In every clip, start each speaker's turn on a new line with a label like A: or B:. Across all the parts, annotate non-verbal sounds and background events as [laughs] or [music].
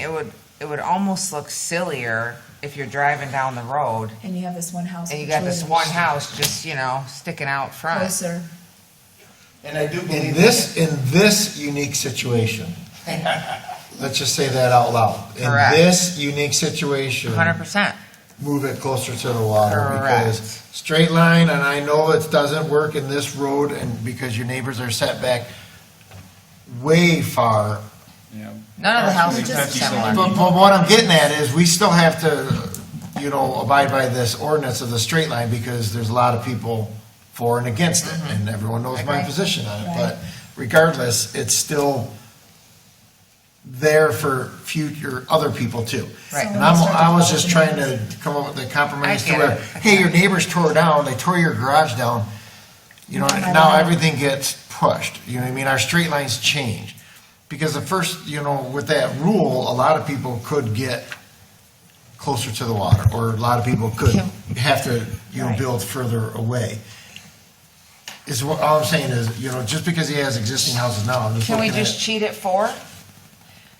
A: it would it would almost look sillier if you're driving down the road
B: And you have this one house.
A: and you got this
B: which
A: one
B: lives
A: house just you know sticking out front.
B: Closer.
C: And I do
D: In
C: believe.
D: this, in this unique situation, [laughs] let's just say that out loud. In
A: Correct.
D: this unique situation,
A: Hundred percent.
D: move it closer to the water. Because
A: Correct.
D: straight line, and I know it doesn't work in this road and because your neighbors are set back way far.
E: Yeah.
A: None of the houses are
B: Just-
A: similar.
D: But, but what I'm getting at is we still have to, you know, abide by this ordinance of the straight line because there's a lot of people for and against it and everyone knows my
A: Agree.
D: position on it.
B: Right.
D: But regardless, it's still there for future, other people too.
A: Right.
D: And I'm, I was just trying to come up with a compromise to
A: I get
D: where,
A: it.
D: hey, your neighbors tore down, they tore your garage down. You know, now everything gets pushed, you know what I mean? Our straight lines change. Because the first, you know, with that rule, a lot of people could get closer to the water, or a lot of people could have to, you know,
B: Right.
D: build further away. Is what, all I'm saying is, you know, just because he has existing houses now, I'm just
A: Can we
D: looking at
A: just
D: it.
A: cheat it four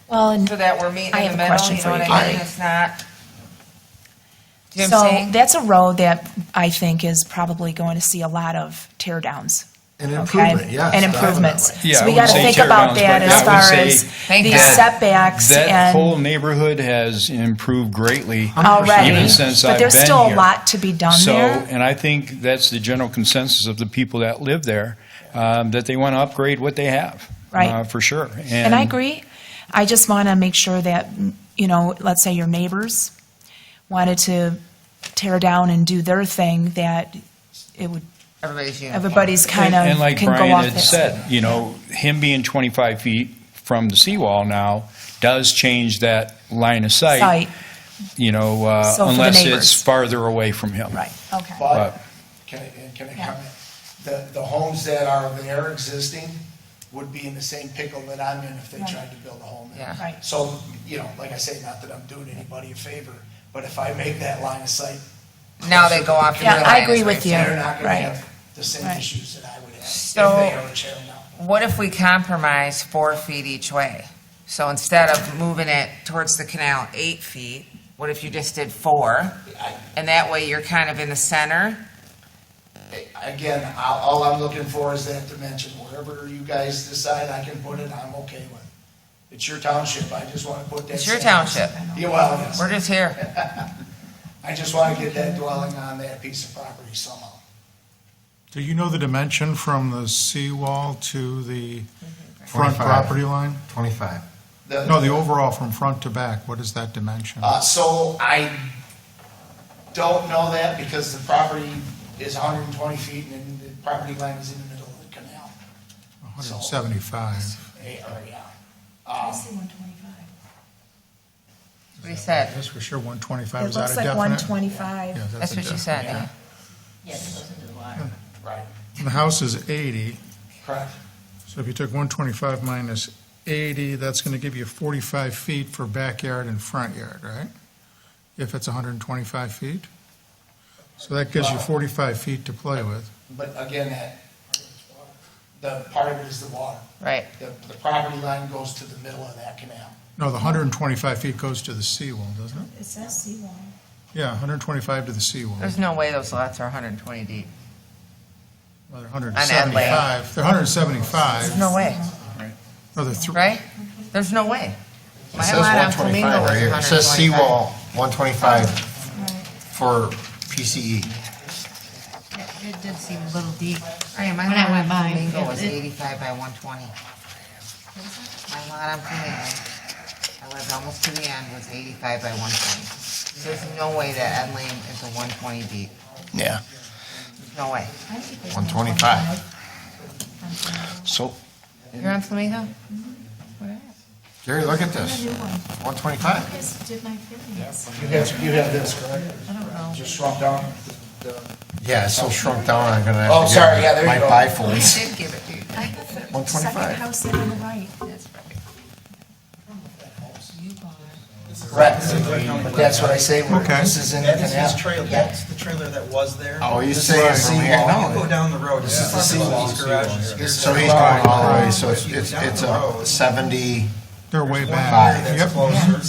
F: Well, and
A: so that we're meeting
F: I
A: in the
F: have a
A: middle?
F: question
A: You
F: for
A: know what
F: you,
A: I mean?
F: Karen.
A: It's not. Do you know what I'm
F: so
A: saying?
F: that's a road that I think is probably going to see a lot of tear downs.
D: An
F: okay?
D: improvement, yes.
F: And improvements.
D: definitely.
E: Yeah,
F: So
E: I
F: we gotta
E: wouldn't say
F: think
E: tear
F: about
E: downs, but
F: that as
E: I would
F: far
E: say
F: as
A: Thank
F: these
A: God.
F: setbacks
E: That
F: and
E: whole neighborhood has improved greatly.
F: already.
E: Even since
F: But
E: I've
F: there's
E: been
F: still a
E: here.
F: lot to be done
E: So,
F: there.
E: and I think that's the general consensus of the people that live there, um, that they want to upgrade what they have.
F: Right.
E: uh, For sure.
F: And I agree. I just wanna make sure that, you know, let's say your neighbors wanted to tear down and do their thing, that it would,
A: Everybody's uniform.
F: everybody's kind of
E: And and like
F: can go
E: Brian
F: off
E: had
F: this.
E: said, you know, him being 25 feet from the seawall now does change that line of sight,
F: Site,
E: you know, uh,
F: So for the
E: unless
F: neighbors.
E: it's farther away from him.
F: right, okay.
E: But-
D: But, can I, can I comment? The, the homes that are there existing would be in the same pickle that I'm in if they
F: Right.
D: tried to build a home there.
A: Yeah.
F: Right.
D: So, you know, like I say, not that I'm doing anybody a favor, but if I make that line of sight,
A: Now they go off. the
F: Yeah,
A: red
F: I
A: line,
F: agree
A: is what
F: with
A: I'm
F: you.
A: saying.
D: they're not gonna
F: Right.
D: have the same
F: Right.
D: issues that I would have if
A: So-
D: they ever tear them down.
A: What if we compromise four feet each way? So instead of moving it towards the canal eight feet, what if you just did four? And that way you're kind of in the center.
C: Again, all, all I'm looking for is that dimension, wherever you guys decide I can put it, I'm okay with. It's your township, I just wanna put that.
A: It's your
C: same-
A: township.
C: Yeah, well, yes,
A: We're just here.
C: I just wanna get that dwelling on that piece of property somehow.
G: Do you know the dimension from the seawall to the front
D: 25.
G: property line?
D: Twenty-five.
C: The-
G: No, the overall from front to back, what is that dimension?
C: Uh, so I don't know that because the property is hundred and twenty feet and then the property line is in the middle of the canal.
G: 175.
C: Eh, or, yeah.
B: I see 125.
A: What he said.
G: That's for sure, 125
F: It
G: is out
F: looks
G: of
F: like
G: definite.
F: 125.
G: Yeah,
A: That's what
G: a
A: you
G: definite,
A: said, yeah.
G: yeah.
C: Right.
G: And The house is 80,
C: Correct.
G: so if you took 125 minus 80, that's going to give you 45 feet for backyard and front yard, right? If it's 125 feet. So that gives you 45 feet to play with.
C: But again, that, the part of it is the water.
A: Right.
C: The, the property line goes to the middle of that canal.
G: No, the 125 feet goes to the seawall, doesn't it?
B: It says seawall.
G: Yeah, 125 to the seawall.
A: There's no way those lots are 120 deep.
G: Well, they're
A: Adelaide.
G: 175, they're 175,
A: No way,
G: no, they're thr-
A: right? There's no way. My lot on Flamingo was 125.
D: one twenty-five for E, PCE.
H: It did seem a little deep.
A: Hey, my
H: When
A: lot
H: I
A: on
B: Oh,
H: went by,
A: Flamingo was
H: it-
A: 85 by 120. My lot on Flamingo, I lived almost to the end, was 85 by 120. There's no way that Ed Lane is a 120 deep.
D: Yeah,
A: No way.
D: one twenty-five.
E: So,
A: You're on Flamingo?
D: Jerry, look at this, one twenty-five.
B: You guys did my feelings.
C: You have, you have this, correct?
A: I don't know.
C: Just shrunk down.
D: Yeah, it's so shrunk down, I'm gonna have to.
C: Oh,
D: get
C: sorry, yeah, there you
D: my
C: go.
A: I
C: [laughs]
D: bifolds.
A: did give it to you.
B: I have the
D: 125.
B: Second house in on the right.
A: That's right.
C: Correct. But that's what I say, where
G: Okay.
C: this is in the
I: That is his
C: canal.
I: trailer, that's the trailer that was there.
D: Oh, he's
I: This
D: saying
I: is
D: from
I: the
D: here,
I: seawall.
D: no.
I: You Go down the road, this is the seawall garage.
D: So he's going all the way, so it's, it's it's a seventy.
G: they're way
I: One
G: back.
I: area that's
G: Yep.
I: closer.